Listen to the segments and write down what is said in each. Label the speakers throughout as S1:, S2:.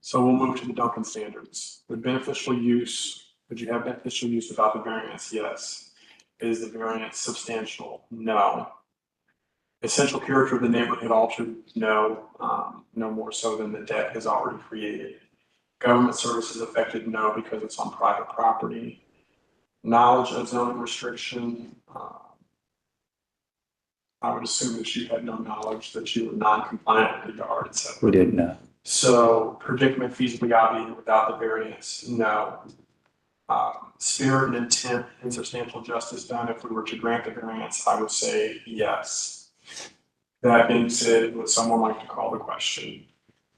S1: So we'll move to the Duncan standards. The beneficial use, would you have beneficial use without the variance? Yes. Is the variance substantial? No. Essential character of the neighborhood altered? No, um, no more so than the deck has already created. Government services affected? No, because it's on private property. Knowledge of zoning restriction, uh, I would assume that you had no knowledge that you were non-compliant with regard, et cetera.
S2: We didn't know.
S1: So predicament feasibly obviated without the variance, no. Um, Spirit and intent and substantial justice done, if we were to grant the variance, I would say yes. That being said, would someone like to call the question?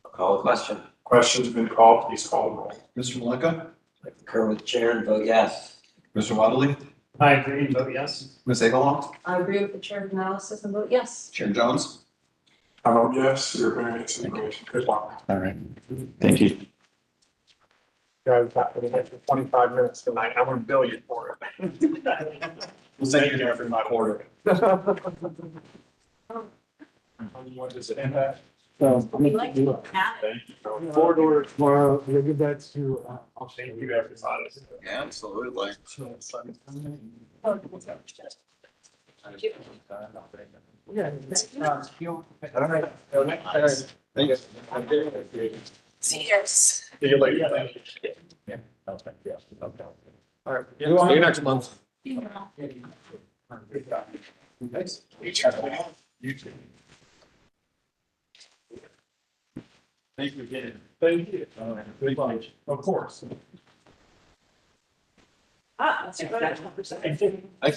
S3: Call the question.
S1: Question's been called, please call the roll.
S4: Mr. Malika?
S3: I concur with the chair and vote yes.
S4: Mr. Waddley?
S5: I agree and vote yes.
S4: Ms. Egelhoff?
S6: I agree with the chair of analysis and vote yes.
S4: Chair Jones?
S1: I vote yes, your variance is granted. Good luck.
S2: All right. Thank you.
S1: Guys, that would have been twenty-five minutes tonight. I'm gonna bill you for it.
S4: We'll send you every my order.
S1: What does it impact?
S7: So,
S6: We like to look at it.
S1: Thank you.
S7: board order tomorrow, we'll give that to, uh, I'll say.
S1: Thank you, everybody.
S4: Absolutely.
S7: Yeah. uh, you'll- All right. all right, all right.
S4: Thank you.
S6: Cheers.
S4: See you later.
S7: All right. See you next month.
S4: You too.
S7: Thank you again. Thank you. Good lunch. Of course.
S6: Ah, that's good.
S4: I,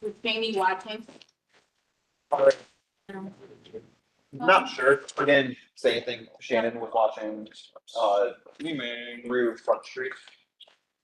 S6: With Jamie Watkins.
S4: not sure. I didn't say anything. Shannon was watching, uh, we may Rue Front Street.